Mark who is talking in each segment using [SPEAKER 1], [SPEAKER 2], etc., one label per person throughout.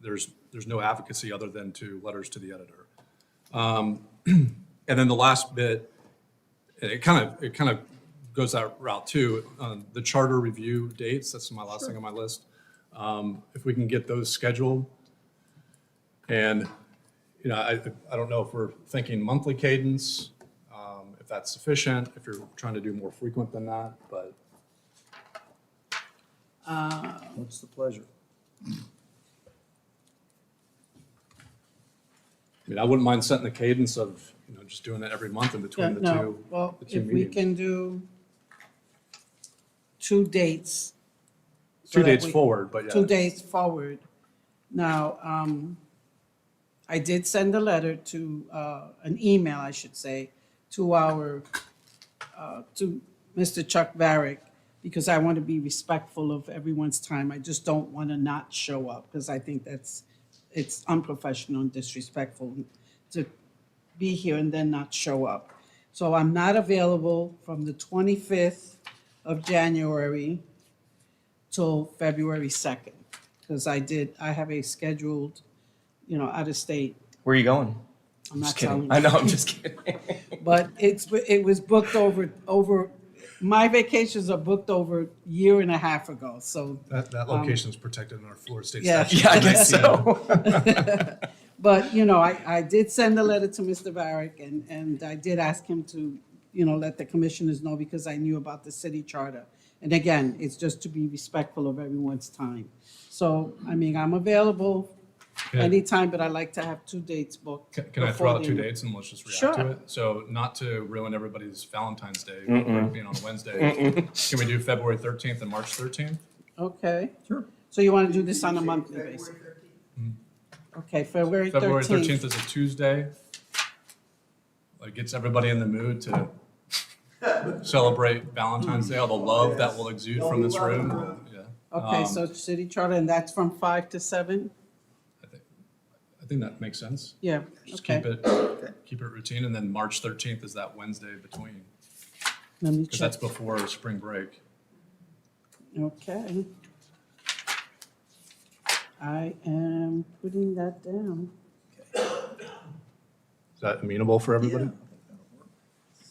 [SPEAKER 1] there's, there's no advocacy other than to letters to the editor. Um, And then the last bit, and it kind of, it kind of goes that route too. Um, The charter review dates, that's my last thing on my list. Um, If we can get those scheduled. And, you know, I, I don't know if we're thinking monthly cadence, um, if that's sufficient, if you're trying to do more frequent than that, but
[SPEAKER 2] Uh.
[SPEAKER 3] What's the pleasure?
[SPEAKER 1] I mean, I wouldn't mind setting the cadence of, you know, just doing that every month in
[SPEAKER 2] Yeah,
[SPEAKER 1] between the
[SPEAKER 2] no,
[SPEAKER 1] two.
[SPEAKER 2] well,
[SPEAKER 1] the two
[SPEAKER 2] if we
[SPEAKER 1] meetings.
[SPEAKER 2] can do two dates. so
[SPEAKER 1] Two
[SPEAKER 2] that
[SPEAKER 1] dates
[SPEAKER 2] we-
[SPEAKER 1] forward, but uh, yeah.
[SPEAKER 2] Two days forward. Now, um, I did send a letter to, uh, an email, I should say, to our, uh, to Mr. Chuck Varick, because I want to be respectful of everyone's time. I just don't want to not show up, because I think that's, it's unprofessional and disrespectful to be here and then not show up. So I'm not available from the 25th of January till February 2nd, because I did, I have a scheduled, you know, out of state.
[SPEAKER 4] Where are you going?
[SPEAKER 2] I'm not
[SPEAKER 4] Just kidding.
[SPEAKER 2] telling
[SPEAKER 4] I
[SPEAKER 2] you.
[SPEAKER 4] know, I'm just kidding.
[SPEAKER 2] But it's, it was booked over, over, my vacations are booked over year and a half ago, so.
[SPEAKER 1] That, that location's protected in our Florida state
[SPEAKER 2] um, Yeah.
[SPEAKER 1] statute.
[SPEAKER 4] Yeah, I guess so.
[SPEAKER 2] But, you know, I, I did send a letter to Mr. Varick, and, and I did ask him to, you know, let the commissioners know because I knew about the city charter. And again, it's just to be respectful of everyone's time. So, I mean, I'm available
[SPEAKER 1] Yeah.
[SPEAKER 2] anytime, but I like to have two dates booked.
[SPEAKER 1] Can, can I
[SPEAKER 2] before
[SPEAKER 1] throw out
[SPEAKER 2] the
[SPEAKER 1] two
[SPEAKER 2] end.
[SPEAKER 1] dates and let's just react
[SPEAKER 2] Sure.
[SPEAKER 1] to it? So not to ruin everybody's Valentine's Day, being on a Wednesday, can we do February thirteenth and March thirteenth?
[SPEAKER 2] Okay. Sure. So you want to do this on a monthly basis? Okay, February
[SPEAKER 1] Mm-hmm. February thirteenth
[SPEAKER 2] thirteenth.
[SPEAKER 1] is a Tuesday. Like gets everybody in the mood to celebrate Valentine's Day, all the love that will exude from this room. Yeah,
[SPEAKER 2] Okay,
[SPEAKER 1] um,
[SPEAKER 2] so city charter, and that's from five to seven?
[SPEAKER 1] I think, I think that makes sense.
[SPEAKER 2] Yeah,
[SPEAKER 1] Just keep
[SPEAKER 2] okay.
[SPEAKER 1] it, keep it routine, and then March thirteenth is that Wednesday between,
[SPEAKER 2] Let me
[SPEAKER 1] because that's
[SPEAKER 2] check.
[SPEAKER 1] before spring break.
[SPEAKER 2] Okay. I am putting that down,
[SPEAKER 1] Is that amenable for everybody?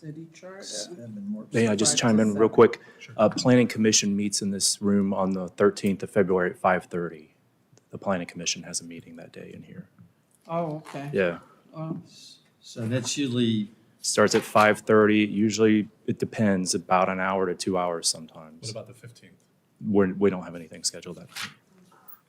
[SPEAKER 2] city charter.
[SPEAKER 5] May I just chime in real quick? Uh, Planning Commission meets in this room on the 13th of February at 5:30. The Planning Commission has a meeting that day in here.
[SPEAKER 2] Oh, okay.
[SPEAKER 5] Yeah.
[SPEAKER 2] Um,
[SPEAKER 3] So that's usually,
[SPEAKER 5] Starts at 5:30, usually it depends, about an hour to two hours
[SPEAKER 1] What
[SPEAKER 5] sometimes.
[SPEAKER 1] about the fifteenth?
[SPEAKER 5] We're, we don't have anything scheduled that day.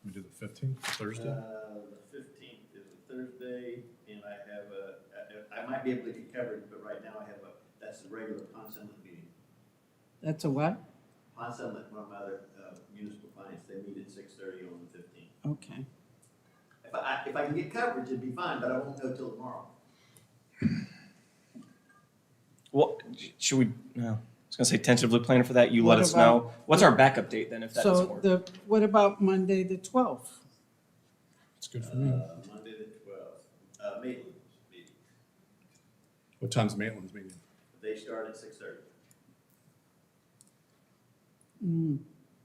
[SPEAKER 1] We do the fifteenth, Thursday?
[SPEAKER 6] Uh, The fifteenth is a Thursday, and I have a, I- I might be able to get covered, but right now I have a, that's the regular Pond Summit meeting.
[SPEAKER 2] That's a what?
[SPEAKER 6] Pond Summit, one of my other uh, municipal clients, they meet at six thirty on the fifteenth.
[SPEAKER 2] Okay.
[SPEAKER 6] If I, if I can get coverage, it'd be fine, but I won't know till tomorrow.
[SPEAKER 4] Well, should we, no, I was gonna say tentatively plan for that. You let
[SPEAKER 2] What
[SPEAKER 4] us
[SPEAKER 2] about-
[SPEAKER 4] know. What's our backup date then if that doesn't
[SPEAKER 2] So
[SPEAKER 4] work?
[SPEAKER 2] the, what about Monday, the twelfth?
[SPEAKER 1] It's good for me.
[SPEAKER 6] Uh, Monday the twelfth, uh, Maitland's meeting,
[SPEAKER 1] What time's Maitland's meeting?
[SPEAKER 6] they start at six thirty.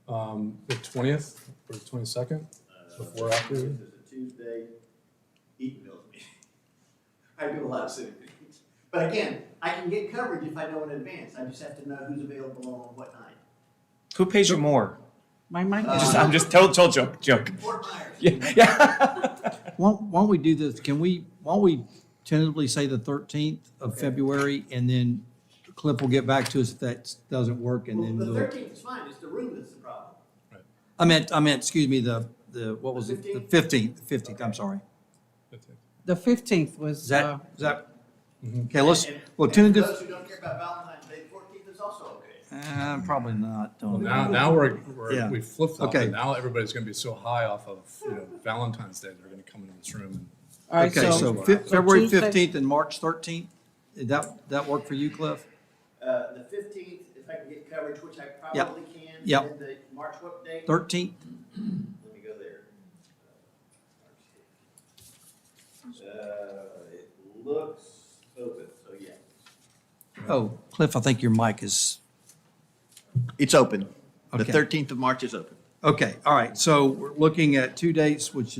[SPEAKER 1] Um, the twentieth or the twenty-second? Before, after?
[SPEAKER 6] This is a Tuesday, Eatonville's meeting. I do a lot of city meetings. But again, I can get coverage if I know in advance, I just have to know who's available on what night.
[SPEAKER 4] Who pays you more?
[SPEAKER 2] My mic
[SPEAKER 6] Uh,
[SPEAKER 2] is
[SPEAKER 4] Just, I'm just total, total joke, joke.
[SPEAKER 6] Fort Myers.
[SPEAKER 4] Yeah, yeah.
[SPEAKER 3] why don't we do this? Can we, why don't we tentatively say the 13th of February? And then Cliff will get back to us if that doesn't work and
[SPEAKER 6] Well,
[SPEAKER 3] then
[SPEAKER 6] the
[SPEAKER 3] we'll.
[SPEAKER 6] thirteenth is fine, it's the room that's the problem.
[SPEAKER 3] I meant, I meant, excuse me, the, the, what was it? The 15th, 15th, I'm sorry.
[SPEAKER 2] The fifteenth
[SPEAKER 3] Is
[SPEAKER 2] was, uh,
[SPEAKER 3] that, is that? Okay, let's,
[SPEAKER 6] And-
[SPEAKER 3] well,
[SPEAKER 6] and
[SPEAKER 3] tune
[SPEAKER 6] for
[SPEAKER 3] into,
[SPEAKER 6] Those who don't care about Valentine's Day, fourteenth is also okay.
[SPEAKER 3] uh, probably not.
[SPEAKER 1] Well,
[SPEAKER 3] don't-
[SPEAKER 1] now, now we're, we're,
[SPEAKER 3] Yeah.
[SPEAKER 1] we flip-flopped.
[SPEAKER 3] Okay.
[SPEAKER 1] and Now everybody's gonna be so high off of, you know, Valentine's Day, they're gonna come into this room and
[SPEAKER 2] all right,
[SPEAKER 3] Okay, so
[SPEAKER 2] so,
[SPEAKER 3] fi- February
[SPEAKER 2] Tuesday-
[SPEAKER 3] 15th and March 13th, did that, that work for you, Cliff?
[SPEAKER 6] Uh, the fifteenth, if I can get coverage, which I
[SPEAKER 3] Yep.
[SPEAKER 6] probably can. and then
[SPEAKER 3] Yep.
[SPEAKER 6] the March what date?
[SPEAKER 3] 13th?
[SPEAKER 6] Let me go there. Uh, it looks open, so yeah.
[SPEAKER 3] Oh, Cliff, I think your mic is,
[SPEAKER 6] It's open.
[SPEAKER 3] The Okay.
[SPEAKER 6] thirteenth of March is open.
[SPEAKER 3] okay, all right. So we're looking at two dates, which